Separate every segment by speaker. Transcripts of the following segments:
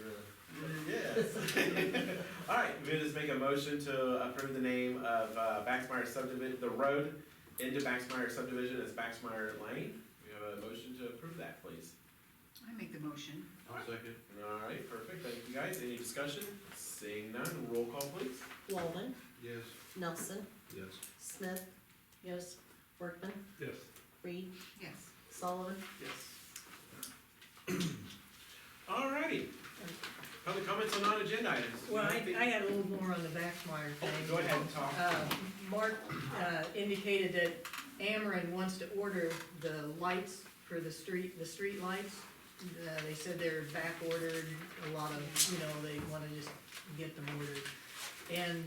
Speaker 1: All right, we just make a motion to approve the name of uh, Baxmeyer subdivision, the road into Baxmeyer subdivision as Baxmeyer Lane. We have a motion to approve that, please.
Speaker 2: I make the motion.
Speaker 3: I'll second.
Speaker 1: All right, perfect, thank you guys. Any discussion? Seeing none, roll call please.
Speaker 4: Walden,
Speaker 3: Yes.
Speaker 4: Nelson,
Speaker 3: Yes.
Speaker 4: Smith. Yes. Workman,
Speaker 3: Yes.
Speaker 4: Reed,
Speaker 2: Yes.
Speaker 4: Sullivan,
Speaker 1: Yes. All righty. Public comments on non-agenda items.
Speaker 5: Well, I, I had a little more on the Baxmeyer
Speaker 1: Oh,
Speaker 5: thing.
Speaker 1: Go ahead and talk.
Speaker 5: Uh, Mark, uh, indicated that Ameren wants to order the lights for the street, the street lights. Uh, they said they're back ordered, a lot of, you know, they wanna just get them ordered. And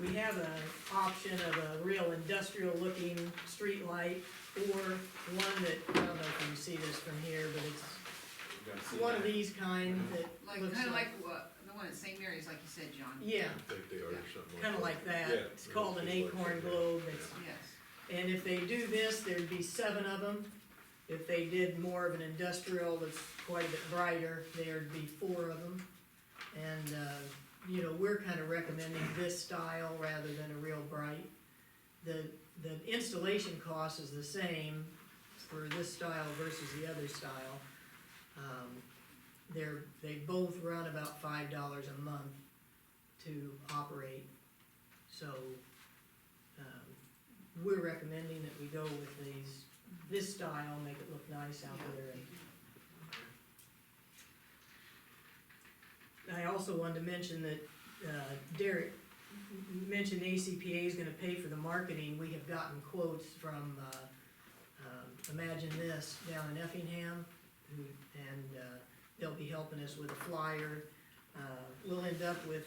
Speaker 5: we have an option of a real industrial looking street light or one that, I don't know if you see this from here, but it's
Speaker 1: You gotta see
Speaker 5: one of
Speaker 1: that.
Speaker 5: these kind that looks
Speaker 2: Like, kinda like what, the one at St. Mary's, like you said, John.
Speaker 5: Yeah,
Speaker 3: I think they are something.
Speaker 5: kind of like that.
Speaker 3: Yeah.
Speaker 5: It's called an acorn globe. It's-
Speaker 2: Yes.
Speaker 5: And if they do this, there'd be seven of them. If they did more of an industrial that's quite a bit brighter, there'd be four of them. And, uh, you know, we're kind of recommending this style rather than a real bright. The, the installation cost is the same for this style versus the other style. Um, They're, they both run about five dollars a month to operate. So, um, we're recommending that we go with these, this style, make it look nice out there. And I also wanted to mention that uh, Derek m- m- mentioned ACPA is gonna pay for the marketing. We have gotten quotes from, uh, um, Imagine This down in Effingham, who, and, uh, they'll be helping us with a flyer. Uh, We'll end up with